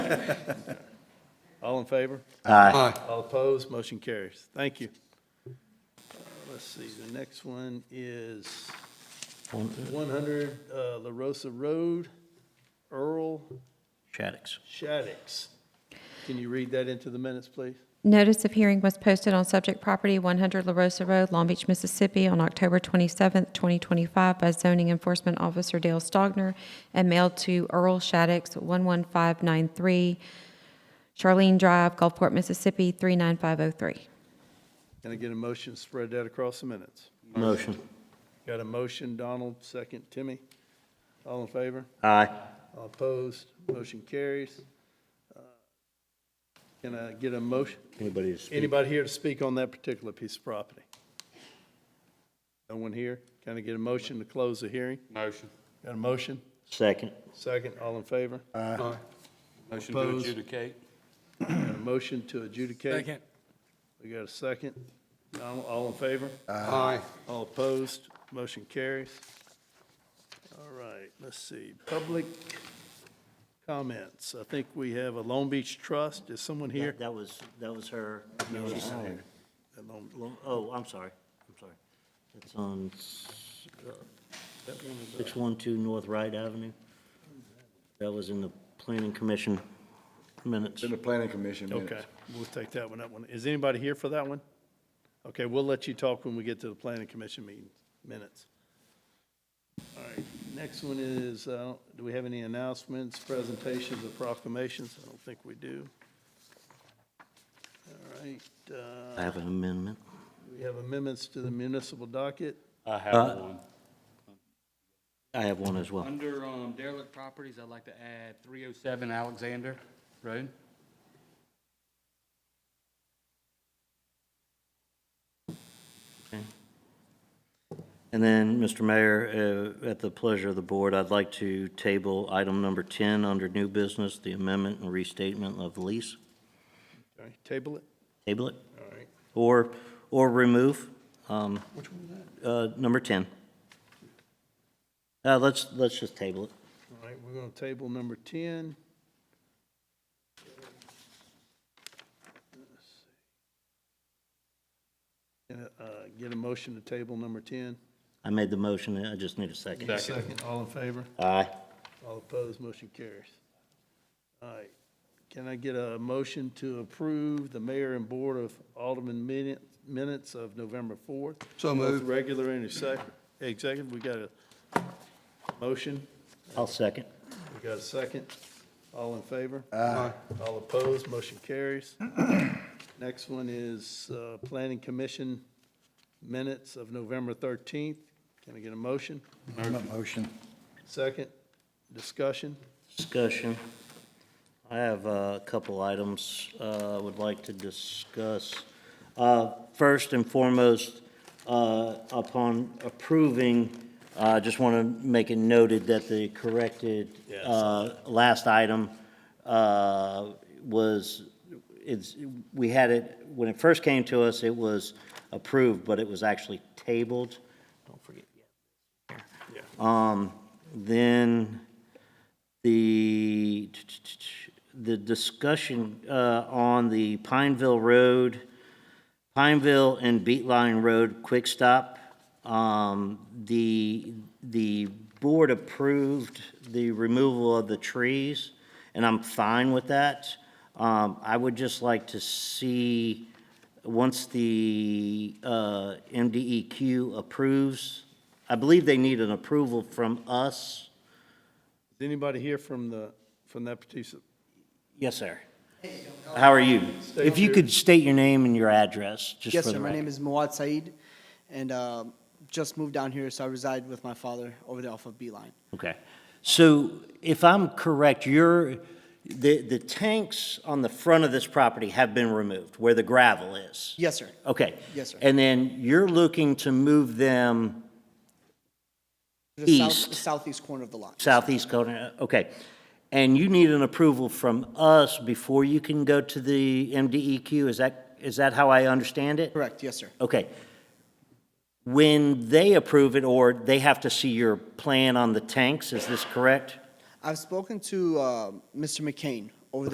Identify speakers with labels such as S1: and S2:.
S1: All in favor?
S2: Aye.
S1: All opposed, motion carries. Thank you. Uh, Let's see, the next one is 100 uh, La Rosa Road, Earl
S2: Shaddix.
S1: Shaddix. Can you read that into the minutes, please?
S3: Notice of hearing was posted on subject property 100 La Rosa Road, Long Beach, Mississippi, on October 27, 2025, by zoning enforcement officer Dale Stogner, and mailed to Earl Shaddix, 11593 Charlene Drive, Gulfport, Mississippi, 39503.
S1: Can I get a motion, to spread that across the minutes?
S2: Motion.
S1: Got a motion, Donald, second, Timmy. All in favor?
S2: Aye.
S1: All opposed, motion carries. Uh, Can I get a motion?
S2: Anybody to speak?
S1: Anybody here to speak on that particular piece of property? No one here? Can I get a motion to close the hearing?
S4: Motion.
S1: Got a motion?
S2: Second.
S1: Second, all in favor?
S4: Motion to
S1: Opposed.
S4: adjudicate.
S1: Got a motion to adjudicate?
S5: Second.
S1: We got a second? Donald, all in favor?
S4: Aye.
S1: All opposed? Motion carries. All right, let's see, public comments. I think we have a Long Beach Trust. Is someone here?
S2: That was, that was her. She signed it.
S1: That Long-
S2: Lo- Oh, I'm sorry. I'm sorry. It's on s- uh,
S1: that one is-
S2: 612 North Wright Avenue. That was in the planning commission minutes.
S6: In the planning commission minutes.
S1: Okay, we'll take that one, that one. Is anybody here for that one? Okay, we'll let you talk when we get to the planning commission meeting, minutes. All right, next one is, uh, do we have any announcements, presentations, or proclamations? I don't think we do. All right, uh,
S2: I have an amendment.
S1: we have amendments to the municipal docket.
S4: I
S2: Uh,
S4: have one.
S2: I have one as well.
S4: Under um, derelict properties, I'd like to add 307 Alexander Road.
S2: And then, Mr. Mayor, uh, at the pleasure of the board, I'd like to table item number 10 under new business, the amendment and restatement of lease.
S1: All right, table it.
S2: Table it.
S1: All right,
S2: Or, or remove. um, uh, Number 10. Uh, Let's, let's just table it.
S1: all right, we're going to table number 10. Let's see. Uh, uh, Get a motion to table number 10.
S2: I made the motion, I just need a second.
S1: Second, all in favor?
S2: Aye.
S1: All opposed, motion carries. All right, can I get a motion to approve the mayor and board of alderman minute- minutes of November 4th?
S5: So
S1: Both
S5: moved.
S1: Regular and exec- executive, we got a motion,
S2: I'll second.
S1: we got a second. All in favor?
S5: Aye.
S1: All opposed, motion carries. Next one is uh, Planning Commission minutes of November 13th. Can I get a motion?
S6: Motion.
S1: Second, discussion?
S2: Discussion. I have uh, a couple items uh, I would like to discuss. Uh, First and foremost, uh, upon approving, uh, I just want to make it noted that the corrected uh, last item uh, was, it's, we had it, when it first came to us, it was approved, but it was actually tabled. Don't forget. Um, Then the, the discussion uh, on the Pineville Road, Pineville and Beetline Road Quick Stop, um, the, the board approved the removal of the trees, and I'm fine with that. Um, I would just like to see, once the uh, MDEQ approves, I believe they need an approval from us.
S1: Is anybody here from the, from that particular,
S2: Yes, sir. How are you? If you could state your name and your address, just
S7: Yes,
S2: for
S7: sir.
S2: the
S7: My name
S2: record.
S7: is Muad Saeed, and um, just moved down here, so I reside with my father over there off of Beeline.
S2: Okay. So if I'm correct, you're, the, the tanks on the front of this property have been removed, where the gravel is?
S7: Yes, sir.
S2: Okay.
S7: Yes, sir.
S2: And then you're looking to move them
S7: The south-
S2: East.
S7: Southeast corner of the lot.
S2: southeast corner, okay. And you need an approval from us before you can go to the MDEQ? Is that, is that how I understand it?
S7: Correct, yes, sir.
S2: Okay. When they approve it, or they have to see your plan on the tanks, is this correct?
S7: I've spoken to uh, Mr. McCain